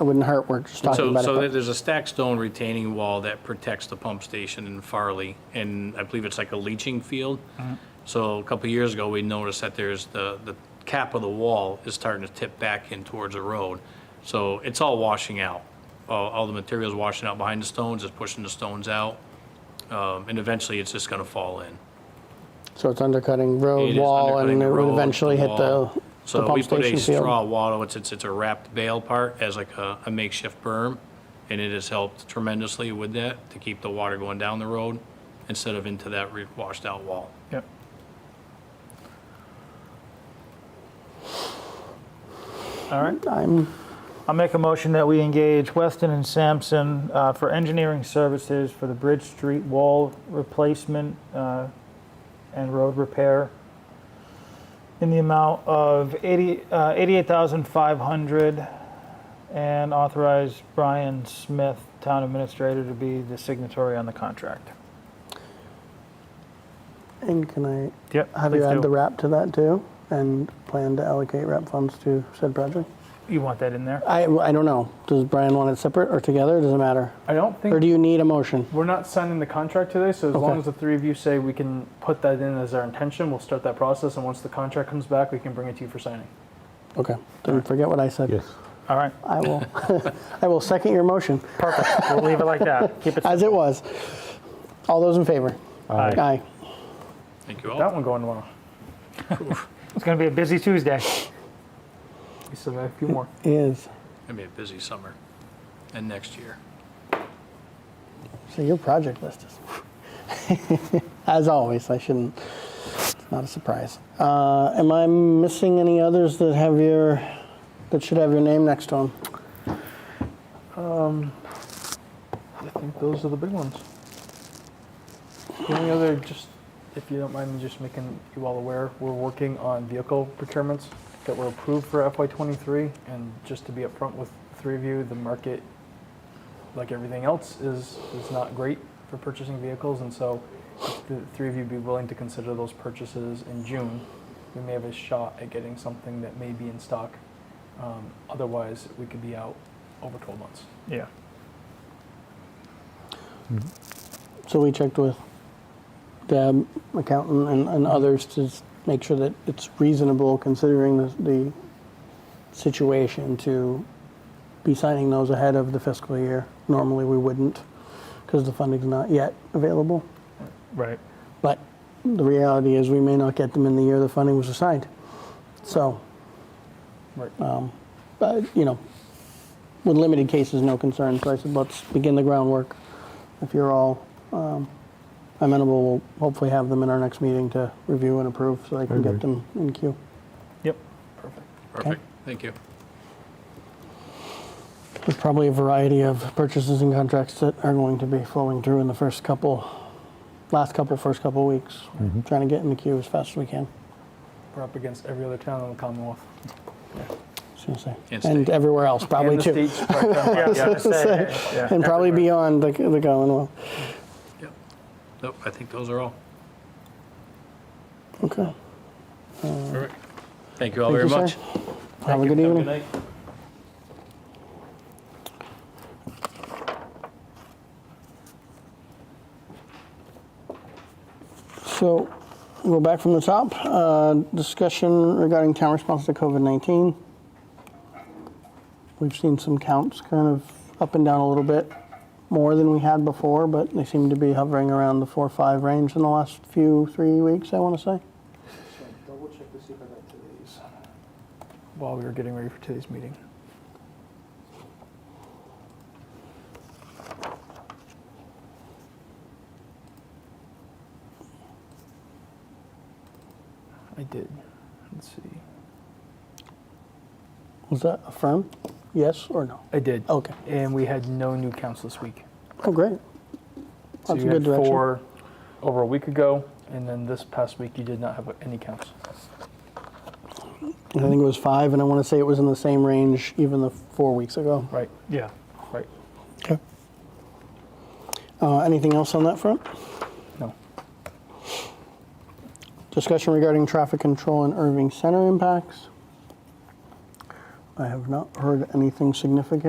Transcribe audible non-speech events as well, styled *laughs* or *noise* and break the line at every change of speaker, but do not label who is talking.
It wouldn't hurt, we're just talking
So,
about
so
it.
there's a stacked stone retaining wall that protects the pump station in Farley, and I believe it's like a leaching field.
Mm-hmm.
So a couple of years ago, we noticed that there's the, the cap of the wall is starting to tip back in towards the road. So it's all washing out. All, all the material's washing out behind the stones, it's pushing the stones out. Um, and eventually, it's just gonna fall in.
but- So it's undercutting road,
It is
wall,
undercutting
and
the
it would
road,
eventually hit the
wall.
the
So
pump
we put a
station field.
straw wattle, it's, it's, it's a wrapped bale part as like a a makeshift berm. And it has helped tremendously with that to keep the water going down the road instead of into that re- washed out wall.
Yep. All right.
I'm,
I'll make a motion that we engage Weston and Sampson uh, for engineering services for the Bridge Street wall replacement uh, and road repair in the amount of 80, uh, 88,500 and authorize Brian Smith, town administrator, to be the signatory on the contract.
and can I
Yep.
have you add the wrap to that too? And plan to allocate wrap funds to said project?
You want that in there?
I, I don't know. Does Brian want it separate or together? Does it matter?
I don't think
Or do you need a motion?
we're not signing the contract today, so as
Okay.
long as the three of you say we can put that in as our intention, we'll start that process. And once the contract comes back, we can bring it to you for signing.
Okay, then forget what I said.
Yes.
All right.
I will, *laughs* I will second your motion,
Perfect. We'll leave it like that. Keep it.
as it was. All those in favor?
Aye.
Aye.
Thank you
That
all.
one going well.
It's going to be a busy Tuesday.
We still got a few more.
Is,
It's gonna be a busy summer and next year.
so your project list is, *laughs* as always, I shouldn't, it's not a surprise. Uh, Am I missing any others that have your, that should have your name next to them?
I think those are the big ones. The only other, just if you don't mind me just making you all aware, we're working on vehicle procurements that were approved for FY23. And just to be upfront with the three of you, the market, like everything else, is, is not great for purchasing vehicles. And so if the three of you be willing to consider those purchases in June, we may have a shot at getting something that may be in stock. Um, otherwise, we could be out over 12 months.
Yeah.
So we checked with Deb, accountant, and, and others to s- make sure that it's reasonable considering the, the situation to be signing those ahead of the fiscal year. Normally, we wouldn't because the funding's not yet available.
Right.
But the reality is we may not get them in the year the funding was assigned. So,
Right.
but, you know, with limited cases, no concern. So I said, let's begin the groundwork. If you're all um, amenable, we'll hopefully have them in our next meeting to review and approve so they can get
agree.
them in queue.
Yep.
Perfect.
Perfect, thank you.
There's probably a variety of purchases and contracts that are going to be flowing through in the first couple, last couple, first couple weeks. Trying to get in the queue as fast as we can.
We're up against every other town in the Commonwealth.
Seriously.
And
And
state.
everywhere else, probably
and
too.
The state's
*laughs*
cracked down hard.
Ah, Yeah, I was gonna
*laughs*
say, yeah,
And probably
everywhere.
beyond the, the Commonwealth.
Yep. Nope, I think those are all.
Okay.
Perfect. Thank you all
Thank
very
you, sir.
much.
Have a good evening.
night.
So we'll go back from the top. Uh, discussion regarding town response to COVID 19. We've seen some counts kind of up and down a little bit more than we had before, but they seem to be hovering around the four or five range in the last few three weeks, I want to say.
Double check to see if I got today's. While we were getting ready for today's meeting. I did. Let's see.
Was that affirmed? Yes or no?
I did.
Okay.
And we had no new counts this week.
Oh, great.
So
That's
you
a good
had
direction.
four over a week ago, and then this past week you did not have any counts.
I think it was five, and I want to say it was in the same range even the four weeks ago.
Right,
Yeah.
right.
Okay. Uh, anything else on that front?
No.
Discussion regarding traffic control and Irving Center impacts. I have not heard anything significant.